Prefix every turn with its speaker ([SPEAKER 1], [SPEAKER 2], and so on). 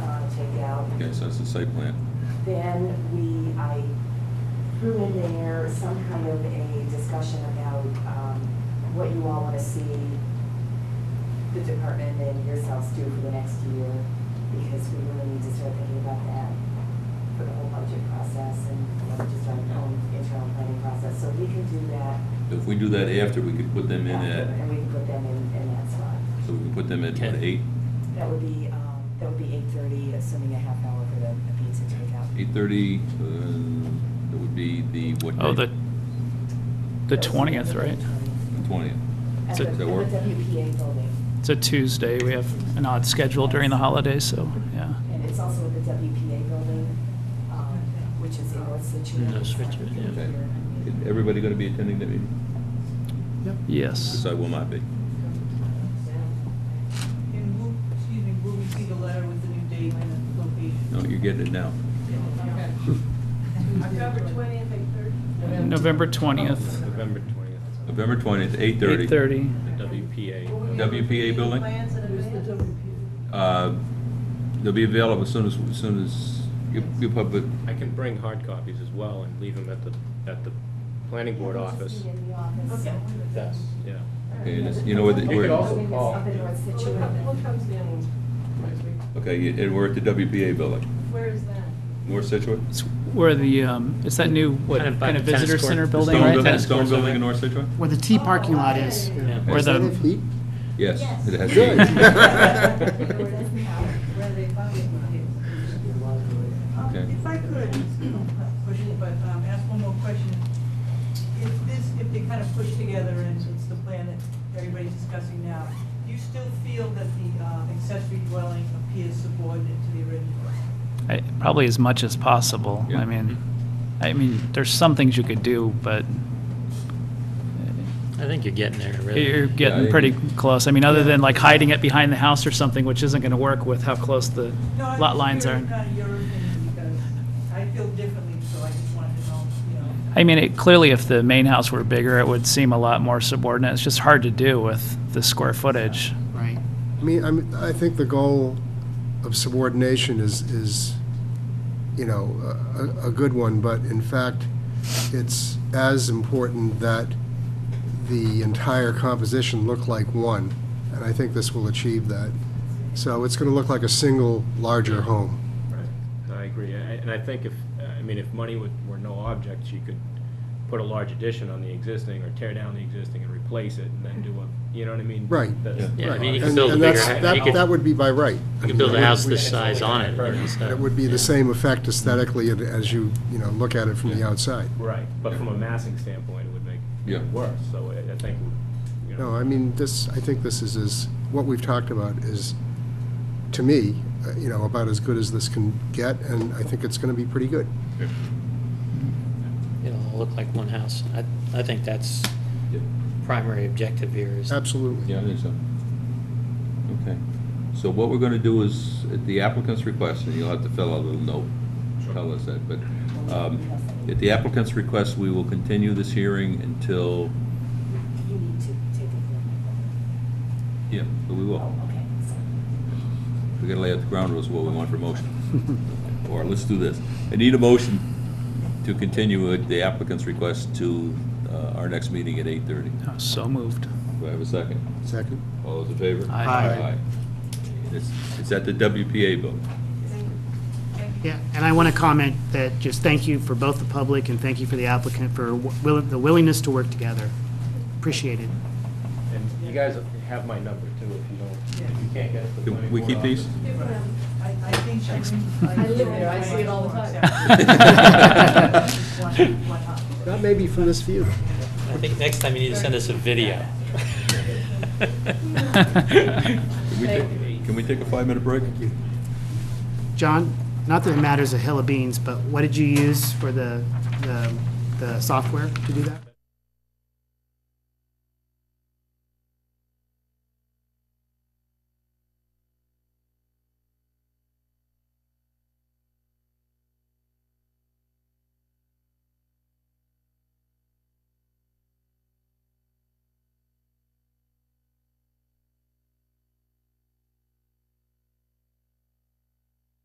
[SPEAKER 1] Okay, so it's the site plan.
[SPEAKER 2] uh, Then we, I threw in there some kind of a discussion about um, what you all want to see the department and yourselves do for the next year, because we really need to start thinking about that for the whole budget process and you know, just our own internal planning process. So we can do that.
[SPEAKER 1] If we do that after, we could put them in
[SPEAKER 2] after,
[SPEAKER 1] at,
[SPEAKER 2] And we can put them in, in that spot.
[SPEAKER 1] so we can put them at what,
[SPEAKER 3] Okay.
[SPEAKER 1] eight,
[SPEAKER 2] That would be, um, that would be eight thirty, assuming a half hour for the the pizza takeout.
[SPEAKER 1] eight thirty? Uh, That would be the, what?
[SPEAKER 3] Oh,
[SPEAKER 1] date?
[SPEAKER 3] the, the 20th, right?
[SPEAKER 1] The Twentieth.
[SPEAKER 2] At
[SPEAKER 3] Does
[SPEAKER 2] the,
[SPEAKER 3] it-
[SPEAKER 2] at the
[SPEAKER 1] work?
[SPEAKER 2] WPA building,
[SPEAKER 3] It's a Tuesday. We have an odd schedule during the holidays, so, yeah.
[SPEAKER 2] and it's also at the WPA building, um, which is in North Situate.
[SPEAKER 3] No, Situate, yeah.
[SPEAKER 1] Okay. Is Everybody gonna be attending that meeting? Because
[SPEAKER 3] Yes.
[SPEAKER 1] I will not be.
[SPEAKER 4] And will, excuse me, will we see the letter with the new date and the location?
[SPEAKER 1] No, you're getting it now.
[SPEAKER 4] October twentieth, eight thirty?
[SPEAKER 3] November 20th,
[SPEAKER 5] November 20th.
[SPEAKER 1] November twentieth, eight thirty.
[SPEAKER 3] 8:30.
[SPEAKER 5] The WPA.
[SPEAKER 1] WPA building?
[SPEAKER 4] Plans and a.
[SPEAKER 1] Uh, They'll be available as soon as, as soon as you, you public,
[SPEAKER 5] I can bring hard copies as well and leave them at the, at the planning board office.
[SPEAKER 2] In the office.
[SPEAKER 4] Okay.
[SPEAKER 5] Yes, yeah.
[SPEAKER 1] okay, and it's- you know where, the-
[SPEAKER 5] You could
[SPEAKER 1] where,
[SPEAKER 5] also
[SPEAKER 2] Building is
[SPEAKER 5] call.
[SPEAKER 2] up in North Situate.
[SPEAKER 4] comes in?
[SPEAKER 1] okay, and we're at the WPA building,
[SPEAKER 4] Where is that?
[SPEAKER 1] North Situate?
[SPEAKER 3] It's where the, um, it's that new, what,
[SPEAKER 5] Kind of by
[SPEAKER 3] kind of
[SPEAKER 5] the tennis
[SPEAKER 3] visitor
[SPEAKER 5] court.
[SPEAKER 3] center
[SPEAKER 5] The
[SPEAKER 3] building,
[SPEAKER 1] Stone
[SPEAKER 3] right?
[SPEAKER 1] building,
[SPEAKER 5] Tennis
[SPEAKER 1] Stone
[SPEAKER 5] courts
[SPEAKER 1] building
[SPEAKER 5] over.
[SPEAKER 1] in North Situate?
[SPEAKER 6] Where the T parking lot is.
[SPEAKER 5] Yeah.
[SPEAKER 3] Where
[SPEAKER 6] Is that
[SPEAKER 3] the-
[SPEAKER 6] a fleet?
[SPEAKER 1] Yes,
[SPEAKER 2] Yes.
[SPEAKER 1] it has.
[SPEAKER 6] Good.
[SPEAKER 1] to be.
[SPEAKER 4] Where they found it. Um,
[SPEAKER 1] Okay.
[SPEAKER 4] If I could, push it, but um, ask one more question. If this, if they kind of push together and it's the plan that everybody's discussing now, do you still feel that the uh, accessory dwelling appears subordinate to the original?
[SPEAKER 3] I- Probably as much as possible.
[SPEAKER 1] Yeah.
[SPEAKER 3] I mean, I mean, there's some things you could do, but
[SPEAKER 7] I think you're getting there, really.
[SPEAKER 3] You're getting
[SPEAKER 1] I-
[SPEAKER 3] pretty close. I mean, other
[SPEAKER 4] Yeah.
[SPEAKER 3] than like hiding it behind the house or something, which isn't going to work with how close the
[SPEAKER 4] No, I'm
[SPEAKER 3] lot
[SPEAKER 4] just
[SPEAKER 3] lines are.
[SPEAKER 4] curious, kind of your opinion, because I feel differently, so I just wanted to know, you know.
[SPEAKER 3] I mean, it, clearly if the main house were bigger, it would seem a lot more subordinate. It's just hard to do with the square footage.
[SPEAKER 6] Right.
[SPEAKER 8] I mean, I'm, I think the goal of subordination is, is, you know, a, a good one, but in fact, it's as important that the entire composition look like one, and I think this will achieve that. So it's gonna look like a single larger home.
[SPEAKER 5] Right. No, I agree. I- And I think if, I mean, if money would- were no object, you could put a large addition on the existing or tear down the existing and replace it and then do a, you know what I mean?
[SPEAKER 8] Right.
[SPEAKER 5] That's-
[SPEAKER 7] Yeah, I mean, you
[SPEAKER 8] And
[SPEAKER 7] can build a
[SPEAKER 8] and
[SPEAKER 7] bigger,
[SPEAKER 8] that's-
[SPEAKER 7] hou- you
[SPEAKER 8] That, that
[SPEAKER 7] could,
[SPEAKER 8] would be by right.
[SPEAKER 7] you could build a house this
[SPEAKER 5] Yeah.
[SPEAKER 7] size on it, you know, so.
[SPEAKER 8] It would be
[SPEAKER 7] yeah.
[SPEAKER 8] the same effect aesthetically and as you, you know, look at it from the outside.
[SPEAKER 5] Right, but from a massing standpoint, it would make
[SPEAKER 1] Yeah.
[SPEAKER 5] it worse, so I I think, you know.
[SPEAKER 8] No, I mean, this, I think this is, is, what we've talked about is, to me, uh, you know, about as good as this can get, and I think it's gonna be pretty good.
[SPEAKER 7] It'll all look like one house. I, I think that's
[SPEAKER 1] Yeah.
[SPEAKER 7] primary objective here is.
[SPEAKER 8] Absolutely.
[SPEAKER 1] Yeah, I think so. Okay. So what we're gonna do is, at the applicant's request, and you'll have to fill out a little note, tell us that, but, um, at the applicant's request, we will continue this hearing until,
[SPEAKER 2] You need to take a.
[SPEAKER 1] yeah, but we will.
[SPEAKER 2] Oh, okay, sorry.
[SPEAKER 1] We gotta lay out the ground rules, of what we want for motion. Or let's do this. I need a motion to continue at the applicant's request to, uh, our next meeting at eight thirty.
[SPEAKER 3] I was so moved.
[SPEAKER 1] Do I have a second?
[SPEAKER 8] Second?
[SPEAKER 1] All those in favor?
[SPEAKER 3] Aye. Aye.
[SPEAKER 1] And It's, it's at the WPA building.
[SPEAKER 6] Yeah, and I want to comment that, just thank you for both the public and thank you for the applicant for will- the willingness to work together. Appreciate it.
[SPEAKER 5] And you guys have my number too, if you don't, if you can't get it. to the
[SPEAKER 1] Can
[SPEAKER 5] planning
[SPEAKER 1] we
[SPEAKER 5] board
[SPEAKER 1] keep these?
[SPEAKER 5] office.
[SPEAKER 4] I, I think. Thanks.
[SPEAKER 2] I live there, I see it all the time.
[SPEAKER 6] That may be from this view.
[SPEAKER 7] I think next time you need to send us a video.
[SPEAKER 1] Can we take, can we take a five-minute break?
[SPEAKER 6] John, not that it matters a hill of beans, but what did you use for the, the- the software to do that?